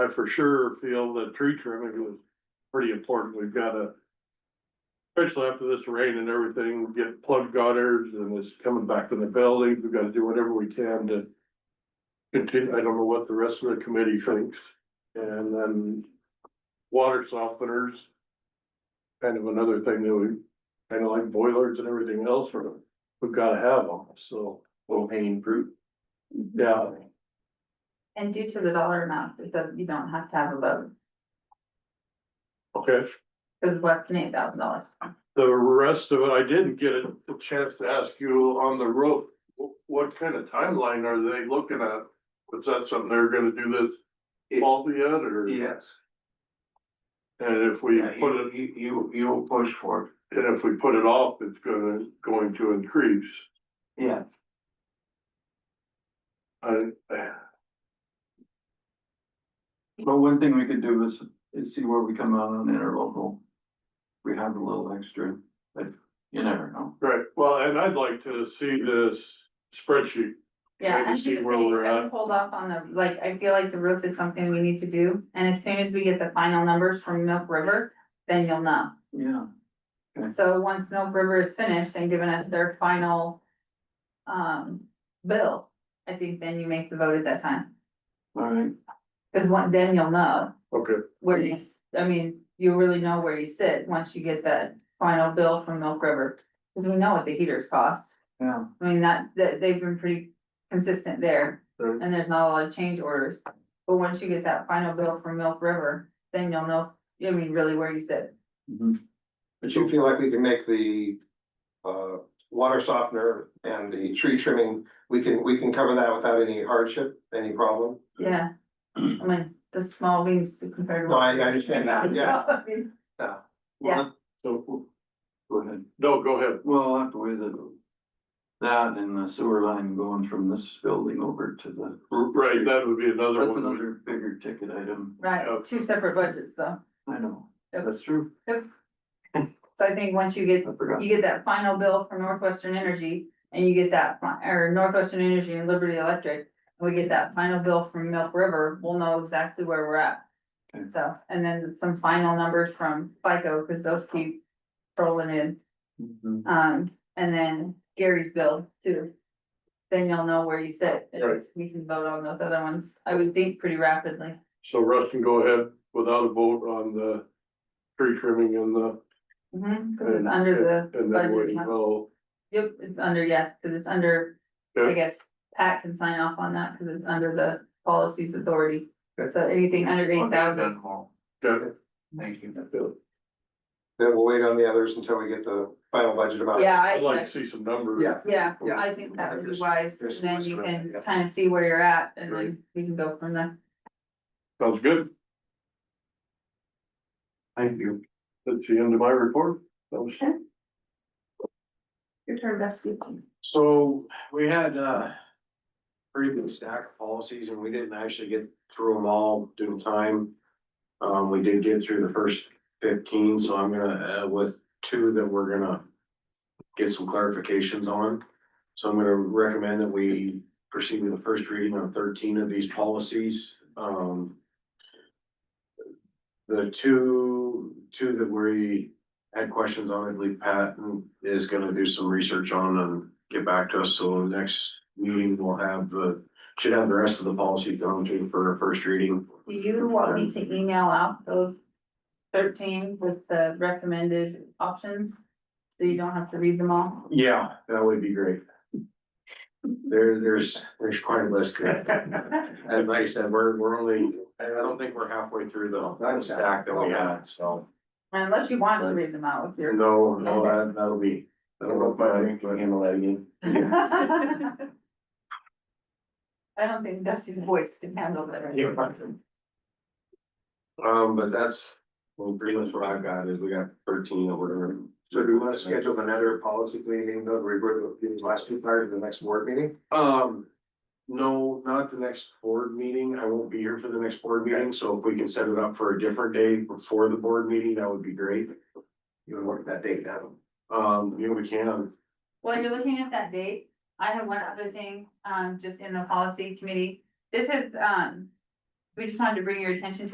I for sure feel that tree trimming was pretty important. We've gotta. Especially after this rain and everything, we get plug gutters and it's coming back in the building. We've gotta do whatever we can to. Continue, I don't know what the rest of the committee thinks. And then water softeners. Kind of another thing that we, kind of like boilers and everything else, or we've gotta have them, so. Low hanging fruit. Yeah, And due to the dollar amount, it does, you don't have to have a vote, okay. because it's less than eight thousand dollars. The rest of it, I didn't get a a chance to ask you on the roof, wh- what kind of timeline are they looking at? Was that something they're gonna do this fall yet, or? Yes, And if we yeah, put you, it, you, you, you will push for it, and if we put it off, it's gonna, going to increase. yeah. I, But one thing we could do is, is see where we come out on interlocal. We have a little extra, but you never know. right, well, and I'd like to see this spreadsheet. Yeah, Maybe I see should where we're say, I at. would hold off on the, like, I feel like the roof is something we need to do, and as soon as we get the final numbers from Milk River, then you'll know. Yeah. So once Milk River is finished and given us their final um bill, I think then you make the vote at that time. All right, Cause one, then you'll know Okay, where you, s- I mean, you really know where you sit once you get that final bill from Milk River. Cause we know what the heaters cost. yeah, I mean, that, that, they've been pretty consistent there, Right. and there's not a lot of change orders. But once you get that final bill from Milk River, then you'll know, I mean, really where you sit. mhm, But you feel like we can make the uh water softener and the tree trimming, we can, we can cover that without any hardship, any problem? Yeah, I mean, the small beans compared to. No, I- I understand that, yeah. I mean, Yeah. so, go ahead. no, go ahead. Well, I'll have to weigh the. That and the sewer line going from this building over to the, Right, that would be another that's one. another bigger ticket item, Oh. Right, two separate budgets though, I know, Yep. that's true, so I think once you get, I forgot. you get that final bill from Northwestern Energy. And you get that, fi- or Northwestern Energy and Liberty Electric, we get that final bill from Milk River, we'll know exactly where we're at. Okay. So, and then some final numbers from FICO, cause those keep rolling in, Mhm. um, and then Gary's bill too. Then you'll know where you sit, and Right. we can vote on those other ones, I would think pretty rapidly. So Russ can go ahead without a vote on the tree trimming and the. Mhm, 'cause it's And- under the, And then budget, we huh? will, yep, it's under, yeah, cause it's under, Yeah. I guess, Pat can sign off on that, cause it's under the policies authority. Okay. So anything under eight thousand, yeah, Mm-hmm. Thank you. Then we'll wait on the others until we get the final budget amount. yeah, I. I'd like to see some numbers. Yeah. Yeah, uh, Yeah. I think that would be There's- wise, and there's then some you wisdom, can yeah. kind of see where you're at, and Right. then we can go from there. Sounds good. Thank you. That's the end of my report. That was- Your turn, Dusty. So we had uh. Pretty good stack of policies and we didn't actually get through them all due to time. Um, we did get through the first fifteen, so I'm gonna, uh, with two that we're gonna. Get some clarifications on. So I'm gonna recommend that we proceed with the first reading on thirteen of these policies, um. The two, two that we had questions on, I believe Pat is gonna do some research on and get back to us, so the next meeting we'll have, uh, should have the rest of the policy done too for our first reading. Do you want me to email out those thirteen with the recommended options? So you don't have to read them all? Yeah, that would be great. There, there's, there's quite a list there. And like I said, we're, we're only, I don't think we're halfway through the the stack that we had, so. Unless you want to read them out with your. No, no, that, that'll be, I don't know if I can handle that again. I don't think Dusty's voice can handle that right Yeah. Um, but that's, well, pretty much what I've got is we got thirteen over. there. So do we want to schedule another policy meeting, though, we were, the last two prior to the next board meeting? Um, no, not the next board meeting. I won't be here for the next board meeting, so if we can set it up for a different day before the board meeting, that would be great. You would work that date down. Um, you know, we can, While you're looking at that date, I have one other thing, um, just in the policy committee. This is, um, we just wanted to bring your attention to